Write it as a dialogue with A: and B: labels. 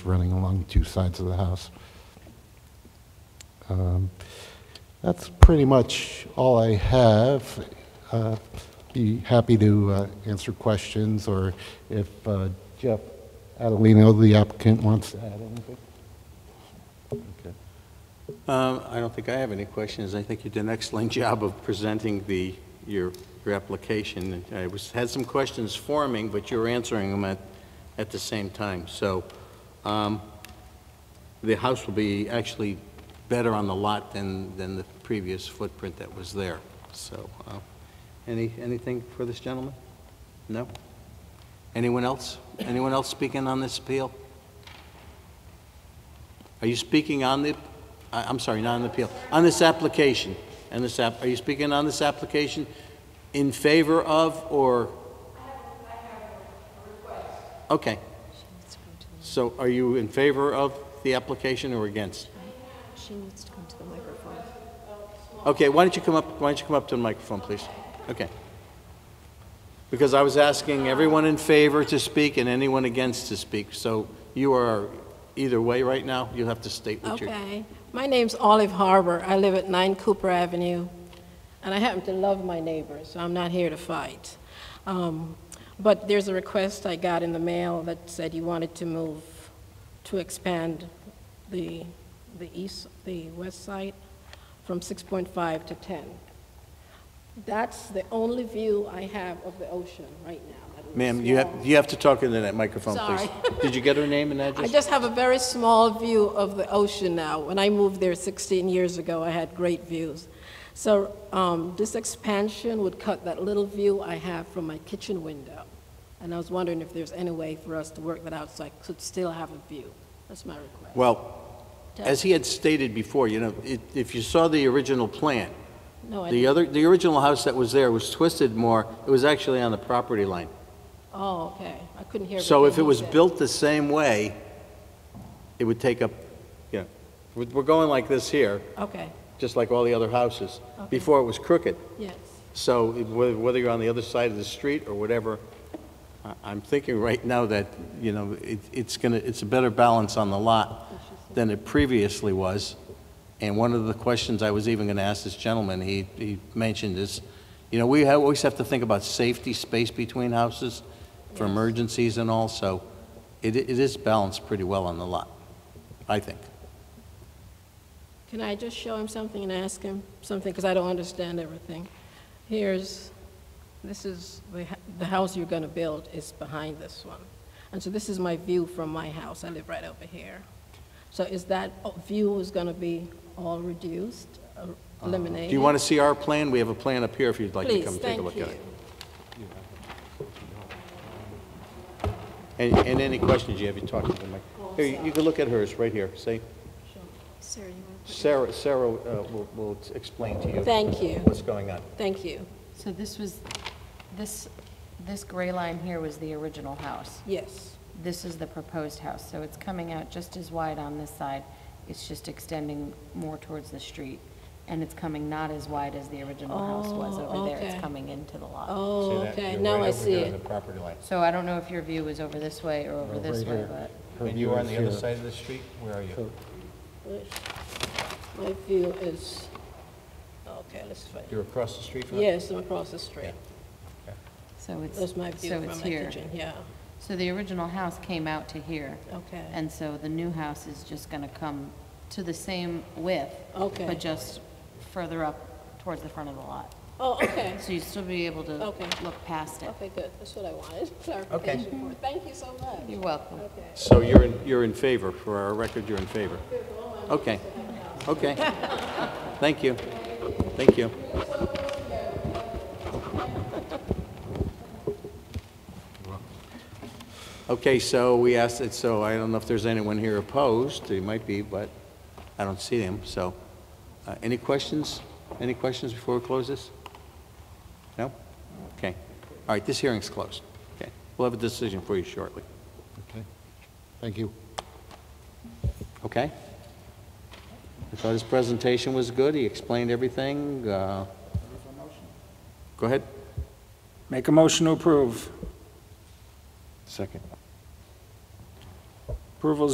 A: running along two sides of the house. Um, That's pretty much all I have. Uh, Be happy to uh, answer questions, or if uh, Jeff Adelino, the applicant, wants to add anything.
B: Um, I don't think I have any questions. I think you did an excellent job of presenting the, your, your application. I was, had some questions forming, but you were answering them at, at the same time. So, um, the house will be actually better on the lot than, than the previous footprint that was there. So, uh, any, anything for this gentleman? No? Anyone else? Anyone else speaking on this appeal? Are you speaking on the, I- I'm sorry, not on the appeal, on this application? And this app, are you speaking on this application in favor of or? Okay. So are you in favor of the application or against?
C: She needs to come to the microphone.
B: Okay, why don't you come up, why don't you come up to the microphone, please? Okay. Because I was asking everyone in favor to speak and anyone against to speak, so you are either way right now, you'll have to state what you're.
D: Okay. My name's Olive Harbor. I live at 9 Cooper Avenue, and I happen to love my neighbors, so I'm not here to fight. Um, But there's a request I got in the mail that said you wanted to move, to expand the, the east, the west side from 6.5 to 10. That's the only view I have of the ocean right now. that little
B: Ma'am, you
D: small-
B: have, you have to talk into that microphone, please.
D: Sorry.
B: Did you get her name and
D: I
B: address?
D: just have a very small view of the ocean now. When I moved there 16 years ago, I had great views. So um, this expansion would cut that little view I have from my kitchen window. And I was wondering if there's any way for us to work that out so I could still have a view. That's my request.
B: Well, as he had stated before, you know, it- if you saw the original plan,
D: No, I
B: the
D: didn't.
B: other, the original house that was there was twisted more, it was actually on the property line.
D: Oh, okay. I couldn't hear.
B: So if
D: everything
B: it
D: he
B: was
D: said.
B: built the same way, it would take up, you know, we're we're going like this here,
D: Okay,
B: just like all the other houses.
D: Okay.
B: Before it was crooked.
D: yes.
B: So whether whether you're on the other side of the street or whatever, I- I'm thinking right now that, you know, it- it's going to, it's a better balance on the lot than it previously was. And one of the questions I was even going to ask this gentleman, he he mentioned is, you know, we ha- always have to think about safety, space between houses for emergencies and all, so it it is balanced pretty well on the lot, I think.
D: Can I just show him something and ask him something, because I don't understand everything? Here's, this is, the h- the house you're going to build is behind this one. And so this is my view from my house, I live right over here. So is that o- view is going to be all reduced, or eliminated?
B: Uh, Do you want to see our plan? We have a plan up here if you'd like to
D: Please,
B: come take
D: thank
B: a look at it.
D: you.
B: And, and any questions you have, you talk to the mic. Here, you- you can look at hers, right here, see?
C: Sarah, you want to?
B: Sarah, Sarah uh, will, will explain to you
D: Thank you,
B: what's going on.
D: thank you,
E: So this was, this, this gray line here was the original house.
D: yes.
E: This is the proposed house, so it's coming out just as wide on this side. It's just extending more towards the street, and it's coming not as wide as the original house was
D: Oh,
E: over there.
D: okay.
E: It's coming into the lot.
D: Oh, okay, now I see it.
B: property line.
E: So I don't know if your view was over this way or over this way, but
B: And you are on the other side of the street? Where are you?
D: My view is, okay, let's find,
B: You're across the street from it?
D: yes, I'm across the street.
E: so it's,
D: That's
E: so
D: my view from my
E: it's here.
D: kitchen, yeah,
E: So the original house came out to here,
D: okay.
E: and so the new house is just gonna come to the same width,
D: Okay.
E: but just further up towards the front of the lot.
D: Oh, okay.
E: So you'd still be able to
D: Okay.
E: look past it.
D: Okay, good. That's what I wanted, clarification. for. Thank you so much.
E: You're welcome.
D: Okay.
B: So you're, in- you're in favor, for our record, you're in favor? Okay, okay. Thank you, thank you. Okay, so we asked it, so I don't know if there's anyone here opposed, there might be, but I don't see them, so. uh, Any questions? Any questions before we close this? No? Okay. All right, this hearing's closed. Okay, we'll have a decision for you shortly.
A: Okay, thank you.
B: Okay. I thought his presentation was good, he explained everything. uh, Go ahead.
F: Make a motion to approve.
B: Second.
F: Approval is